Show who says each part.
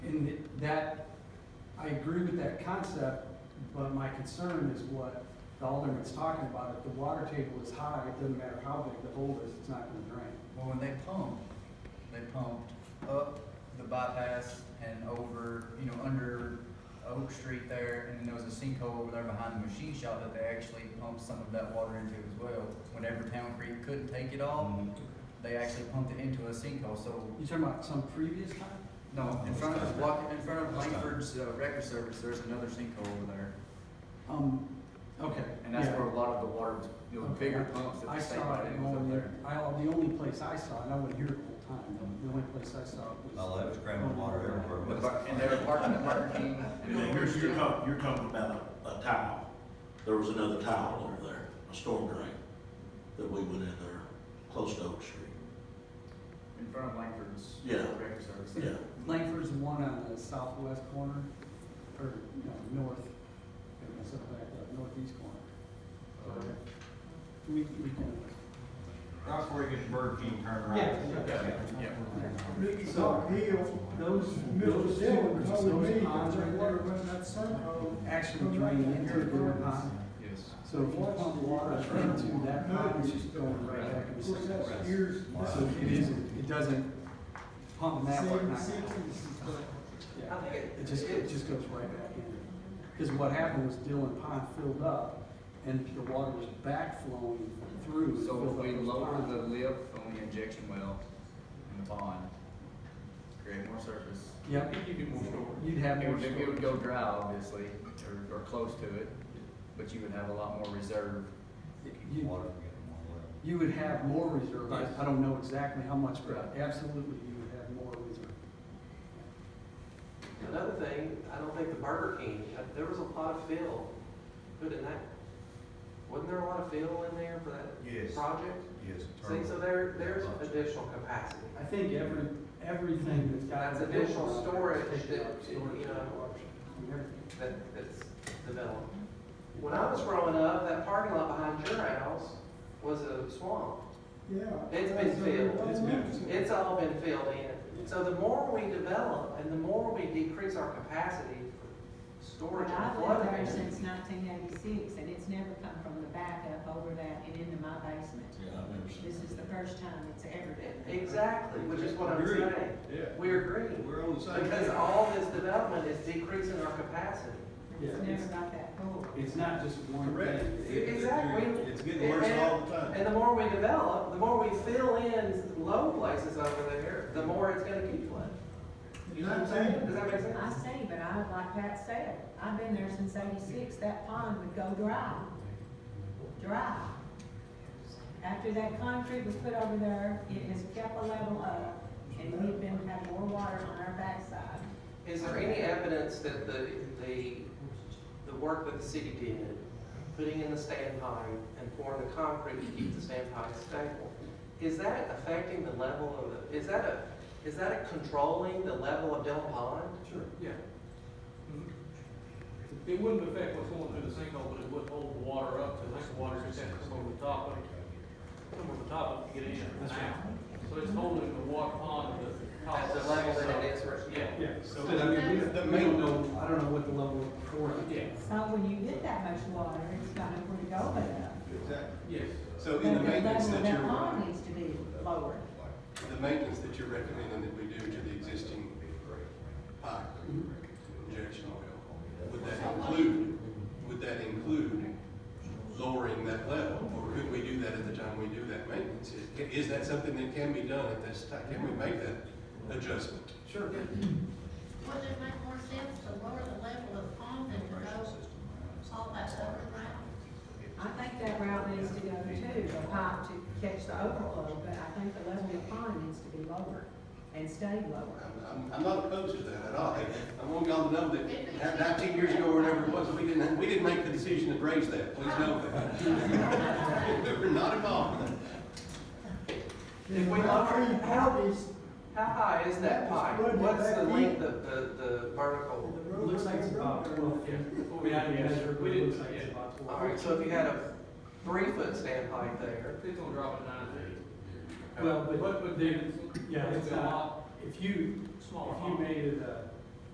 Speaker 1: that, I agree with that concept, but my concern is what the alderman's talking about. If the water table is high, it doesn't matter how big the hole is, it's not gonna drain.
Speaker 2: Well, when they pumped, they pumped up the bypass and over, you know, under Oak Street there, and then there was a sinkhole over there behind the machine shop that they actually pumped some of that water into as well. Whenever Town Creek couldn't take it all, they actually pumped it into a sinkhole, so,
Speaker 1: You talking about some previous time?
Speaker 2: no, in front of, walk- in front of Langford's uh, Record Service, there's another sinkhole over there.
Speaker 1: Um, okay.
Speaker 2: And that's
Speaker 1: yeah.
Speaker 2: where a lot of the water was, you know,
Speaker 1: Okay,
Speaker 2: bigger pumps that
Speaker 1: I
Speaker 2: the state
Speaker 1: saw
Speaker 2: put
Speaker 1: it
Speaker 2: in was up
Speaker 1: going,
Speaker 2: there.
Speaker 1: in- I, the only place I saw it, I wasn't here the whole time, the- the only place I saw it was.
Speaker 3: All that was cramming water everywhere.
Speaker 2: The bar- And they were parking at Burger King.
Speaker 4: And then you're, you're talking, you're talking about a, a tile. There was another tile over there, a storm drain, that we went in there, close to Oak Street.
Speaker 2: In front of Langford's.
Speaker 4: Yeah.
Speaker 2: Breakfast service.
Speaker 4: Yeah.
Speaker 1: Langford's the one on the southwest corner, or, no, north, I guess up back, uh, northeast corner.
Speaker 2: Okay.
Speaker 1: We, we can.
Speaker 3: Right before you get to Burger King, turn right.
Speaker 1: Yeah,
Speaker 2: Yeah.
Speaker 5: Mickey Doc Hill,
Speaker 1: Those,
Speaker 5: Middle
Speaker 1: those,
Speaker 5: Dillon,
Speaker 1: those
Speaker 5: told me
Speaker 1: ponds
Speaker 5: that
Speaker 1: right
Speaker 5: the water
Speaker 1: there
Speaker 5: went that sinkhole.
Speaker 1: actually drain into the river pond.
Speaker 2: Yes.
Speaker 1: So if you pump water into that pond, it's just going right back
Speaker 5: Of
Speaker 1: into
Speaker 5: course,
Speaker 1: the river.
Speaker 5: that's years.
Speaker 1: So it isn't, it doesn't pump that way.
Speaker 5: Seven,
Speaker 1: not-
Speaker 5: sixties.
Speaker 1: Yeah, it just, it just goes right back in. Because what happened was Dillon Pond filled up and the water was back flowing through. and
Speaker 2: So
Speaker 1: filled
Speaker 2: if
Speaker 1: up
Speaker 2: we
Speaker 1: those
Speaker 2: lower
Speaker 1: ponds.
Speaker 2: the lip on the injection well in the pond, create more surface.
Speaker 1: Yep,
Speaker 2: You get more storage.
Speaker 1: you'd have
Speaker 2: It
Speaker 1: more
Speaker 2: would, it would
Speaker 1: storage.
Speaker 2: go dry, obviously, or, or close to it, but you would have a lot more reserve.
Speaker 3: Keep
Speaker 1: You,
Speaker 3: water from getting more level.
Speaker 1: you would have more reserve. I, I don't know exactly how much, but
Speaker 2: Right.
Speaker 1: absolutely you would have more reserve.
Speaker 6: Another thing, I don't think the Burger King, uh, there was a lot of fill put in that. Wasn't there a lot of fill in there for
Speaker 3: Yes.
Speaker 6: that project?
Speaker 3: Yes.
Speaker 6: See, so there, there's additional capacity.
Speaker 1: I think every, everything that's got.
Speaker 6: That's additional storage that, you
Speaker 1: Storage.
Speaker 6: know,
Speaker 1: Everything.
Speaker 6: that, that's developed. When I was growing up, that parking lot behind your house was a swamp.
Speaker 5: Yeah.
Speaker 6: It's been filled.
Speaker 1: It's been-
Speaker 6: It's all been filled in. So the more we develop and the more we decrease our capacity for storage and
Speaker 7: I've
Speaker 6: flooding.
Speaker 7: lived there since nineteen eighty-six, and it's never come from the back up over that and into my basement.
Speaker 3: Yeah, I've never seen.
Speaker 7: This is the
Speaker 3: that.
Speaker 7: first time it's ever been.
Speaker 6: Exactly, which is what I'm
Speaker 8: Agreed.
Speaker 6: saying.
Speaker 8: Yeah.
Speaker 6: We agree,
Speaker 8: We're on the same.
Speaker 6: because
Speaker 8: page.
Speaker 6: all this development is decreasing our capacity.
Speaker 1: Yeah,
Speaker 7: It's never
Speaker 1: it's-
Speaker 7: got that full.
Speaker 1: It's not just one
Speaker 8: Correct.
Speaker 1: thing.
Speaker 8: It- it-
Speaker 6: Exactly.
Speaker 8: It's getting worse all the time.
Speaker 6: And the more we develop, the more we fill in low places over there, the more it's gonna keep flooding.
Speaker 5: You're not saying.
Speaker 6: Does that make
Speaker 7: I
Speaker 6: sense?
Speaker 7: see, but I, like Pat said, I've been there since eighty-six, that pond would go dry. Dry. After that concrete was put over there, it has kept a level up, and we've been having more water on our backside.
Speaker 6: Is there any evidence that the, the, the work that the city did, putting in the standpipe and pouring the concrete to keep the standpipe stable, is that affecting the level of, the? is that a, is that a controlling the level of Dell Pond?
Speaker 8: Sure, yeah. It wouldn't affect what's going through the sinkhole, but it would hold the water up, because the water just has to come over the top of it. Come over the top of it to get in and out. So it's holding the water pond at the top.
Speaker 6: At
Speaker 8: of
Speaker 6: the level that it is right now?
Speaker 8: Yeah.
Speaker 1: Yeah,
Speaker 8: So-
Speaker 1: but I mean, we, we don't know, I don't know what the level of before.
Speaker 8: Yeah,
Speaker 7: So when you get that much water, it's got nowhere to go but up.
Speaker 9: Exactly.
Speaker 8: yes.
Speaker 9: So in the maintenance that
Speaker 7: That pond
Speaker 9: you're,
Speaker 7: needs to be lowered.
Speaker 9: the maintenance that you're recommending that we do to the existing pipe
Speaker 7: Mm-hmm.
Speaker 9: injection oil, would that include, would that include lowering that level? Or could we do that at the time we do that maintenance? Is- Is that something that can be done at this time? Can we make that adjustment?
Speaker 1: Sure.
Speaker 10: Wouldn't it make more sense to lower the level of pond than to go all that overground?
Speaker 7: I think that route needs to go too, the pipe to catch the overflow, but I think the level of the pond needs to be lower and stay lower.
Speaker 9: I'm- I'm, I'm not opposed to that at all. I- I want y'all to know that nineteen years ago, or whatever it was, we didn't, we didn't make the decision to raise that. Please know that. We're not involved in that.
Speaker 6: If we lower,
Speaker 5: Three
Speaker 6: how,
Speaker 5: parties,
Speaker 6: how high is that pipe?
Speaker 5: It's flooded
Speaker 6: What's the
Speaker 5: back
Speaker 6: length of the, the vertical?
Speaker 5: the road.
Speaker 1: Looks like it's about twelve feet. We haven't measured, but it looks like it's about
Speaker 6: All
Speaker 1: twelve.
Speaker 6: right, so if you had a three-foot standpipe there,
Speaker 8: It's gonna drop to nine feet.
Speaker 1: Well, but-
Speaker 8: But, but then,
Speaker 1: yeah,
Speaker 8: it's
Speaker 1: it's
Speaker 8: a
Speaker 1: not-
Speaker 8: lot
Speaker 1: If you, if
Speaker 8: smaller
Speaker 1: you
Speaker 8: pond.
Speaker 1: made it a